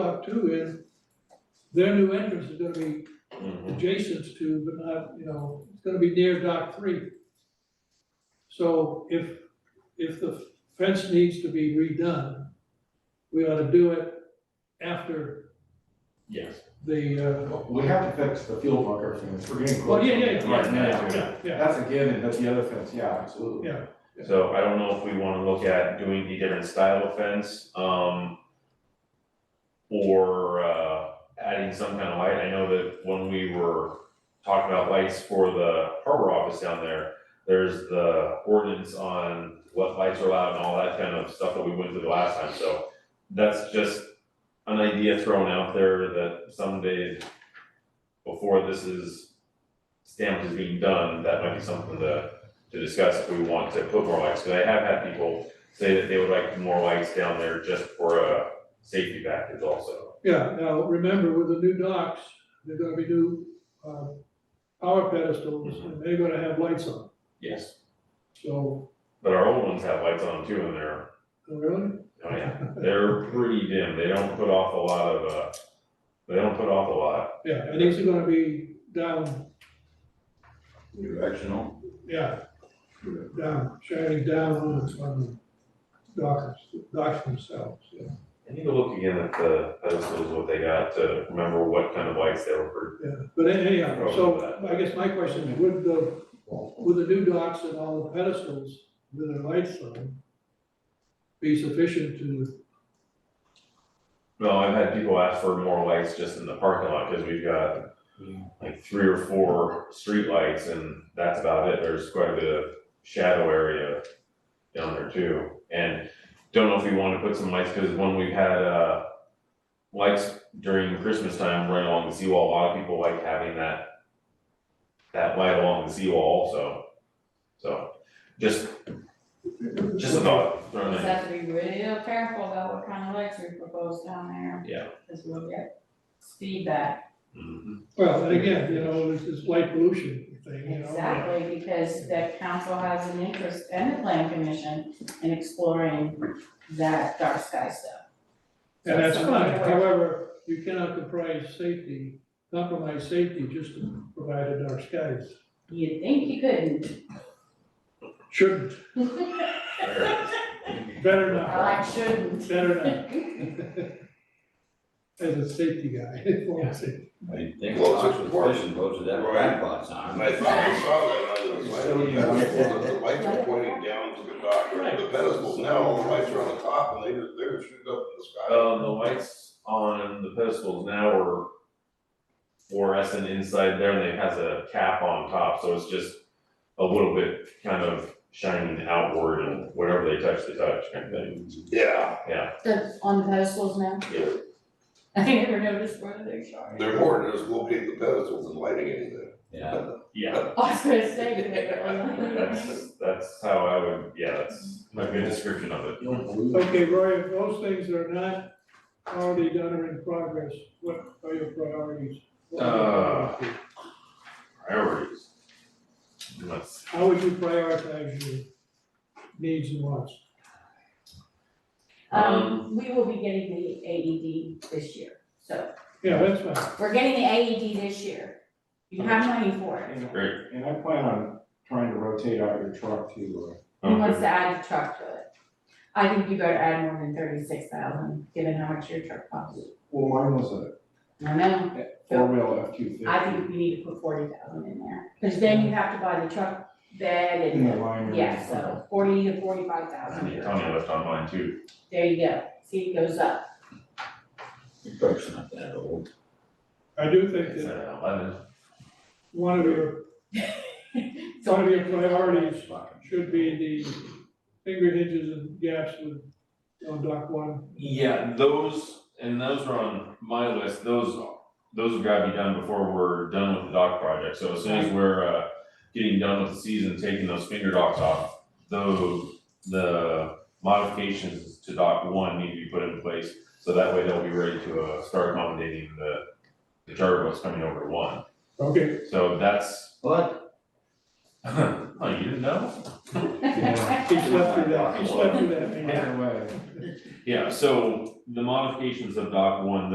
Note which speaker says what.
Speaker 1: about too is their new entrance is gonna be
Speaker 2: Mhm.
Speaker 1: adjacent to, but not, you know, it's gonna be near dock three. So if, if the fence needs to be redone, we ought to do it after
Speaker 2: Yes.
Speaker 1: the, uh,
Speaker 3: We have to fix the field marker fence, we're getting close.
Speaker 1: well, yeah, yeah,
Speaker 3: Right,
Speaker 1: yeah, yeah, yeah,
Speaker 3: That's a given, but the other fence, yeah, absolutely.
Speaker 1: Yeah.
Speaker 2: So I don't know if we wanna look at doing a different style of fence, um. Or uh adding some kind of light, I know that when we were talking about lights for the harbor office down there. There's the ordinance on what lights are allowed and all that kind of stuff that we went through the last time, so. That's just an idea thrown out there that someday before this is stamped as being done, that might be something to to discuss if we want to put more lights, because I have had people say that they would like more lights down there just for a safety package also.
Speaker 1: yeah. Now, remember with the new docks, there're gonna be new, uh, power pedestals and they're gonna have lights on.
Speaker 2: Yes.
Speaker 1: So,
Speaker 2: But our old ones have lights on too, and they're,
Speaker 1: oh, really?
Speaker 2: oh yeah, they're pretty dim, they don't put off a lot of, uh, they don't put off a lot.
Speaker 1: Yeah, and these are gonna be down,
Speaker 3: Directional.
Speaker 1: yeah, down, shining down on the, on the docks, docks themselves, yeah.
Speaker 2: I need to look again at the pedestals, what they got, to remember what kind of lights they were
Speaker 1: Yeah, but anyhow, so
Speaker 2: Probably.
Speaker 1: I guess my question is, would the, would the new docks and all the pedestals with their lights on be sufficient to,
Speaker 2: for. No, I've had people ask for more lights just in the parking lot, because we've got like three or four streetlights, and that's about it, there's quite a bit of shadow area down there too. And don't know if we wanna put some lights, cause when we had, uh, lights during Christmas time right along the seawall, a lot of people like having that, that light along the seawall also. So, just, just a thought, throwing
Speaker 4: Just
Speaker 2: it.
Speaker 4: have to be real careful about what kind of lights we propose down there.
Speaker 2: Yeah.
Speaker 4: Cause we'll get feedback,
Speaker 2: Mhm.
Speaker 1: well, and again, you know, this is light pollution thing, you know?
Speaker 4: exactly, because that council has an interest and the plan commission in exploring that dark sky stuff.
Speaker 1: And that's
Speaker 4: Something
Speaker 1: fine,
Speaker 4: that we're-
Speaker 1: however, you cannot comprise safety, compromise safety just to provide a dark skies.
Speaker 4: You'd think you couldn't.
Speaker 1: Shouldn't,
Speaker 2: There it is.
Speaker 1: better
Speaker 4: I
Speaker 1: not,
Speaker 4: like shouldn't.
Speaker 1: better not. As a safety guy, for safety.
Speaker 5: I think
Speaker 6: Well, it's
Speaker 5: Fox was
Speaker 6: important.
Speaker 5: pushing most of that
Speaker 6: Right.
Speaker 5: grandpa's on.
Speaker 6: I thought I saw that, I was like, why don't you have the lights are pointing down to the dock, or the pedestals, now all the lights are on the top, and they just, they're just shooting up in the sky.
Speaker 2: Um, the lights on the pedestals now are fluorescent inside there, and it has a cap on top, so it's just a little bit kind of shining outward and whatever they touch, they touch kind of thing.
Speaker 6: Yeah,
Speaker 4: That's on the pedestals now? I never noticed where they're showing.
Speaker 6: they're important, just locate the pedestals and lighting anything.
Speaker 5: Yeah,
Speaker 2: Yeah.
Speaker 4: I was gonna say, but they
Speaker 2: That's, that's how I would, yeah, that's a good description of it.
Speaker 1: Okay, Roy, if those things are not already done or in progress, what are your priorities? What are your
Speaker 2: Uh.
Speaker 1: priorities?
Speaker 2: Priorities. Let's,
Speaker 1: How would you prioritize your needs and wants?
Speaker 4: Um, we will be getting the AED this year, so
Speaker 1: Yeah, that's fine,
Speaker 4: we're getting the AED this year. You have money for it.
Speaker 2: great.
Speaker 3: And I plan on trying to rotate out your truck to, uh,
Speaker 4: Who wants to add a truck to it? I think you better add more than thirty-six thousand, given how much your truck costs.
Speaker 3: uh, well, mine was a
Speaker 4: I know,
Speaker 3: four wheel F two fifty.
Speaker 4: I think we need to put forty thousand in there, cause then you have to buy the truck bed
Speaker 3: In the
Speaker 4: and,
Speaker 3: liner.
Speaker 4: yeah, so forty to forty-five thousand.
Speaker 2: I need Tony left on mine too.
Speaker 4: There you go, see, it goes up.
Speaker 5: the truck's not that old.
Speaker 1: I do think
Speaker 2: It's
Speaker 1: that
Speaker 2: at eleven.
Speaker 1: one of your, one of your priorities should be the finger hinges and gaps with, on dock one.
Speaker 2: Yeah, those, and those are on my list, those, those have gotta be done before we're done with the dock project, so as soon as we're, uh, getting done with the season, taking those finger docks off, those, the modifications to dock one need to be put in place, so that way they'll be ready to, uh, start accommodating the, the charter boats coming over to one,
Speaker 1: Okay,
Speaker 2: so that's,
Speaker 5: But
Speaker 2: oh, you didn't know?
Speaker 3: Yeah.
Speaker 1: he slept through that, he slept through that meeting.
Speaker 3: Either way.
Speaker 2: Yeah, so the modifications of dock one,